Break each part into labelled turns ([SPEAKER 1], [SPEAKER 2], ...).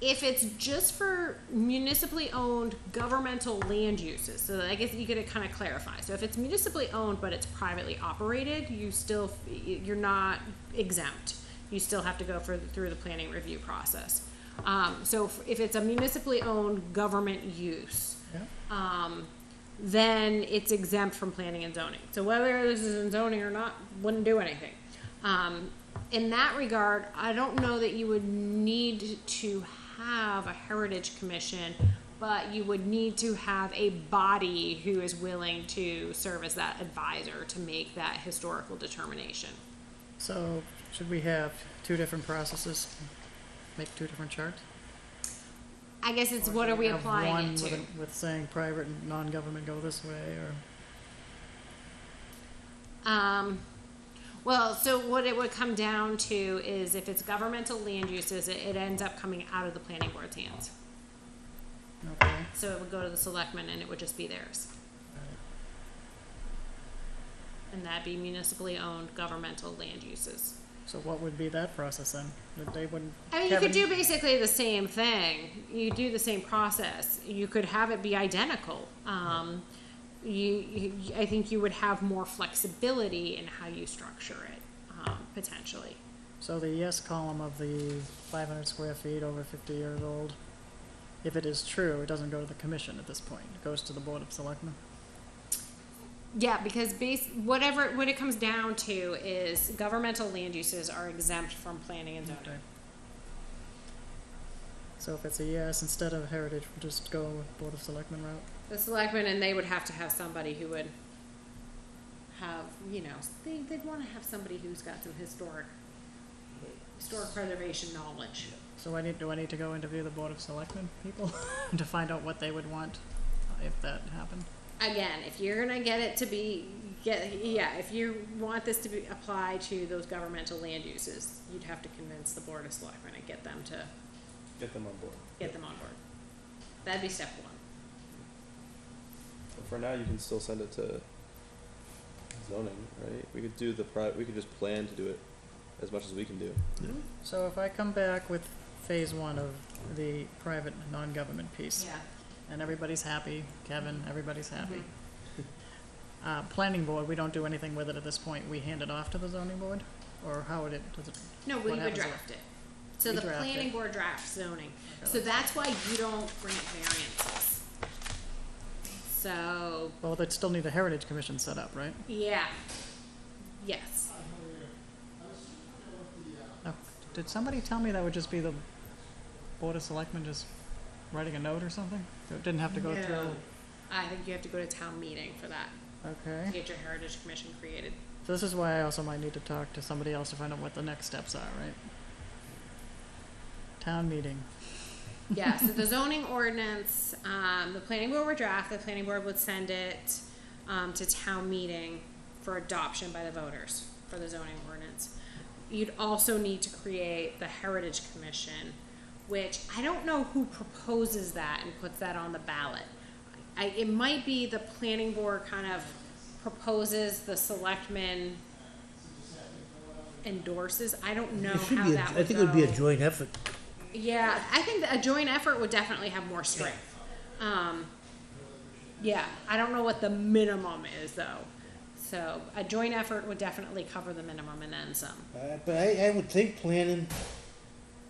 [SPEAKER 1] if it's just for municipally owned governmental land uses, so I guess you could kind of clarify. So if it's municipally owned but it's privately operated, you still you're not exempt. You still have to go for, through the planning review process. Um, so if- if it's a municipally owned government use, um, then it's exempt from planning and zoning. So whether this is in zoning or not, wouldn't do anything. Um, in that regard, I don't know that you would need to have a heritage commission, but you would need to have a body who is willing to serve as that advisor to make that historical determination.
[SPEAKER 2] So should we have two different processes, make two different charts?
[SPEAKER 1] I guess it's
[SPEAKER 2] Or
[SPEAKER 1] what
[SPEAKER 2] should
[SPEAKER 1] are we
[SPEAKER 2] have one
[SPEAKER 1] applying it
[SPEAKER 2] with
[SPEAKER 1] to?
[SPEAKER 2] a- With saying private and non-government go this way, or,
[SPEAKER 1] Um, well, so what it would come down to is if it's governmental land uses, it, it ends up coming out of the planning board's hands.
[SPEAKER 2] okay,
[SPEAKER 1] So it would go to the selectmen and it would just be theirs. And that'd be municipally owned governmental land uses.
[SPEAKER 2] so what would be that process then? That they wouldn't.
[SPEAKER 1] I mean, you could do
[SPEAKER 2] Kevin-
[SPEAKER 1] basically the same thing. You do the same process. You could have it be identical. Um, you, you, I think you would have more flexibility in how you structure it, um, potentially.
[SPEAKER 2] So the yes column of the five hundred square feet over fifty years old, if it is true, it doesn't go to the commission at this point, it goes to the board of selectmen?
[SPEAKER 1] Yeah, because base whatever what it comes down to is governmental land uses are exempt from planning and zoning.
[SPEAKER 2] Okay. So if it's a yes, instead of heritage, we'll just go with board of selectmen route?
[SPEAKER 1] The selectmen and they would have to have somebody who would have, you know, they, they'd wanna have somebody who's got some historic, historic preservation knowledge.
[SPEAKER 2] So I need, do I need to go interview the Board of Selectmen people to find out what they would want uh, if that happened?
[SPEAKER 1] Again, if you're gonna get it to be, get, yeah, if you want this to be, apply to those governmental land uses, you'd have to convince the board of selectmen and get them to,
[SPEAKER 3] Get them on board.
[SPEAKER 1] get them on board. That'd be step one.
[SPEAKER 3] But for now, you can still send it to zoning, right? We could do the pri- we could just plan to do it as much as we can do.
[SPEAKER 2] So if I come back with phase one of the private, non-government piece,
[SPEAKER 1] Yeah.
[SPEAKER 2] and everybody's happy, Kevin, everybody's happy. Uh, planning board, we don't do anything with it at this point, we hand it off to the zoning board, or how would it, does it?
[SPEAKER 1] No, we
[SPEAKER 2] what
[SPEAKER 1] would
[SPEAKER 2] happens if-
[SPEAKER 1] draft it. So
[SPEAKER 2] We
[SPEAKER 1] the
[SPEAKER 2] draft
[SPEAKER 1] planning
[SPEAKER 2] it.
[SPEAKER 1] board drafts zoning.
[SPEAKER 2] Okay.
[SPEAKER 1] So that's why you don't grant variances. So,
[SPEAKER 2] Well, they'd still need a heritage commission set up, right?
[SPEAKER 1] yeah, yes.
[SPEAKER 2] Oh, Did somebody tell me that would just be the Board of Selectmen just writing a note or something? So It didn't have to go
[SPEAKER 1] No.
[SPEAKER 2] through?
[SPEAKER 1] I think you have to go to town meeting for that, to
[SPEAKER 2] Okay.
[SPEAKER 1] get your heritage commission created.
[SPEAKER 2] So This is why I also might need to talk to somebody else to find out what the next steps are, right? Town meeting.
[SPEAKER 1] Yeah, so the zoning ordinance, um, the planning board would draft, the planning board would send it, um, to town meeting for adoption by the voters for the zoning ordinance. You'd also need to create the heritage commission, which I don't know who proposes that and puts that on the ballot. I, it might be the planning board kind of proposes, the selectmen endorses, I don't know
[SPEAKER 4] It should
[SPEAKER 1] how
[SPEAKER 4] be, a-
[SPEAKER 1] that would go.
[SPEAKER 4] I think it would be a joint effort.
[SPEAKER 1] Yeah, I think that a joint effort would definitely have more strength. Um, yeah, I don't know what the minimum is though. So a joint effort would definitely cover the minimum and then some.
[SPEAKER 4] Uh, But I, I would think planning,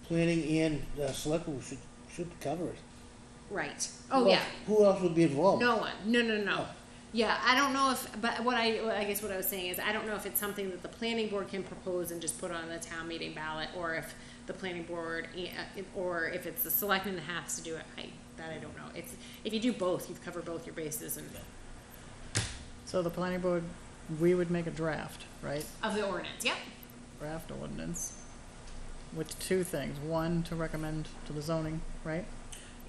[SPEAKER 4] planning and uh, selectmen should, should cover it.
[SPEAKER 1] Right. Oh
[SPEAKER 4] Who
[SPEAKER 1] yeah.
[SPEAKER 4] else- Who else would be involved?
[SPEAKER 1] No one. No, no, no. Yeah, I don't know if, but what I, what I guess what I was saying is I don't know if it's something that the planning board can propose and just put on the town meeting ballot, or if the planning board, eh, eh, or if it's the selectman that has to do it. I, that I don't know. It's if you do both, you've covered both your bases and
[SPEAKER 2] So the planning board, we would make a draft, right?
[SPEAKER 1] of the ordinance. Yep.
[SPEAKER 2] Draft ordinance with two things. One, to recommend to the zoning, right?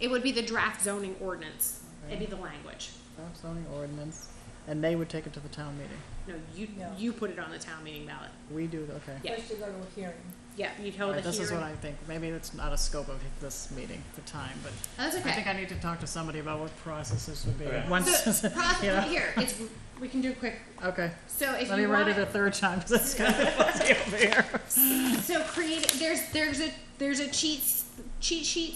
[SPEAKER 1] It would be the draft zoning ordinance. It'd be the language.
[SPEAKER 2] Draft zoning ordinance, and they would take it to the town meeting.
[SPEAKER 1] No, you,
[SPEAKER 5] No.
[SPEAKER 1] you put it on the town meeting ballot.
[SPEAKER 2] We do, okay.
[SPEAKER 1] Yeah.
[SPEAKER 5] First you go to a hearing.
[SPEAKER 1] Yeah, you'd hold
[SPEAKER 2] Right,
[SPEAKER 1] a
[SPEAKER 2] This is what
[SPEAKER 1] hearing.
[SPEAKER 2] I think. Maybe it's not a scope of this meeting, the time, but
[SPEAKER 1] Oh, That's
[SPEAKER 2] I think
[SPEAKER 1] okay.
[SPEAKER 2] I need to talk to somebody about what processes would be.
[SPEAKER 3] Okay.
[SPEAKER 2] Once,
[SPEAKER 1] So, process,
[SPEAKER 2] yeah.
[SPEAKER 1] here, it's, we can do it quick.
[SPEAKER 2] okay,
[SPEAKER 1] So if
[SPEAKER 2] let me
[SPEAKER 1] you
[SPEAKER 2] write
[SPEAKER 1] want
[SPEAKER 2] it a
[SPEAKER 1] it,
[SPEAKER 2] third time, because it's kind of fuzzy over here.
[SPEAKER 1] so create, there's, there's a, there's a cheat, cheat sheet